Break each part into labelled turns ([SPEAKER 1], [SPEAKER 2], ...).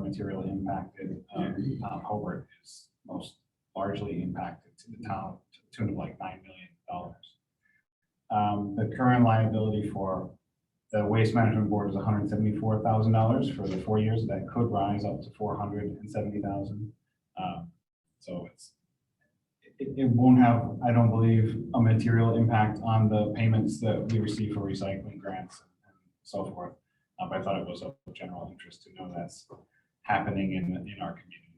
[SPEAKER 1] materially impacted. Um, Tom Hobart is most largely impacted to the town, to the tune of like nine million dollars. Um, the current liability for the Waste Management Board is hundred and seventy-four thousand dollars for the four years. That could rise up to four hundred and seventy thousand. Um, So it's, it, it won't have, I don't believe, a material impact on the payments that we receive for recycling grants and so forth. Uh, But I thought it was of general interest to know that's happening in, in our community.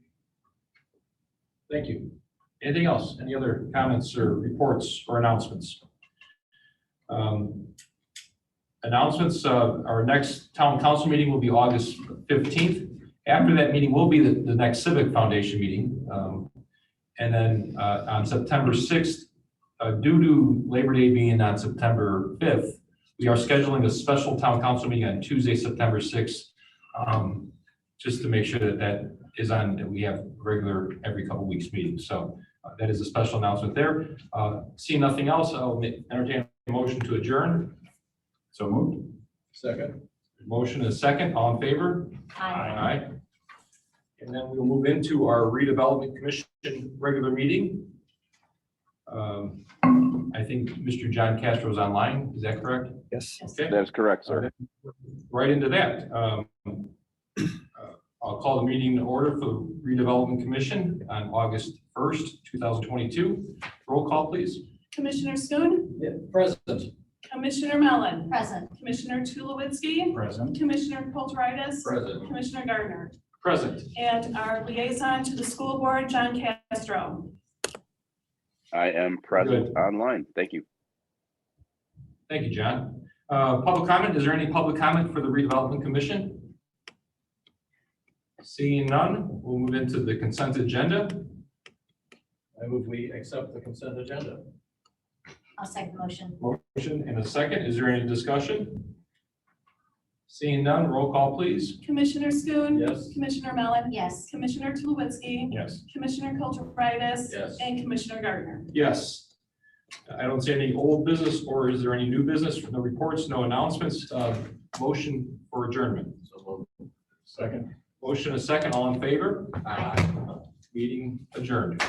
[SPEAKER 2] Thank you. Anything else? Any other comments or reports or announcements? Um, Announcements, uh, our next town council meeting will be August fifteenth. After that meeting will be the, the next Civic Foundation meeting. Um, And then, uh, on September sixth, uh, due to Labor Day being on September fifth, we are scheduling a special town council meeting on Tuesday, September sixth. Um, just to make sure that that is on, that we have regular every couple weeks meetings. So uh, that is a special announcement there. Uh, Seeing nothing else, I'll ma- entertain a motion to adjourn.
[SPEAKER 1] So moved.
[SPEAKER 2] Second. Motion is second. All in favor? Aye. And then we'll move into our redevelopment commission regular meeting. Um, I think Mr. John Castro is online. Is that correct?
[SPEAKER 3] Yes.
[SPEAKER 2] Okay.
[SPEAKER 4] That is correct, sir.
[SPEAKER 2] right into that. Um, uh, I'll call the meeting in order for the redevelopment commission on August first, two thousand twenty-two. Roll call, please.
[SPEAKER 5] Commissioner Schoon,
[SPEAKER 2] President.
[SPEAKER 5] Commissioner Mellon,
[SPEAKER 6] Present.
[SPEAKER 5] Commissioner Tulowitzki,
[SPEAKER 1] Present.
[SPEAKER 5] Commissioner Kulturitis,
[SPEAKER 2] President.
[SPEAKER 5] Commissioner Gardner,
[SPEAKER 2] Present.
[SPEAKER 5] and our liaison to the school board, John Castro.
[SPEAKER 4] I am present online. Thank you.
[SPEAKER 2] Thank you, John. Uh, Public comment, is there any public comment for the redevelopment commission? Seeing none, we'll move into the consent agenda.
[SPEAKER 7] I move we accept the consent agenda.
[SPEAKER 6] I'll second the motion.
[SPEAKER 2] Motion and a second. Is there any discussion? Seeing none, roll call, please.
[SPEAKER 5] Commissioner Schoon,
[SPEAKER 7] Yes.
[SPEAKER 5] Commissioner Mellon,
[SPEAKER 6] Yes.
[SPEAKER 5] Commissioner Tulowitzki,
[SPEAKER 2] Yes.
[SPEAKER 5] Commissioner Kulturitis,
[SPEAKER 7] Yes.
[SPEAKER 5] and Commissioner Gardner.
[SPEAKER 2] Yes. I don't see any old business, or is there any new business from the reports? No announcements? Uh, Motion for adjournment.
[SPEAKER 7] So moved. Second.
[SPEAKER 2] Motion a second, all in favor?
[SPEAKER 6] Aye.
[SPEAKER 2] Meeting adjourned.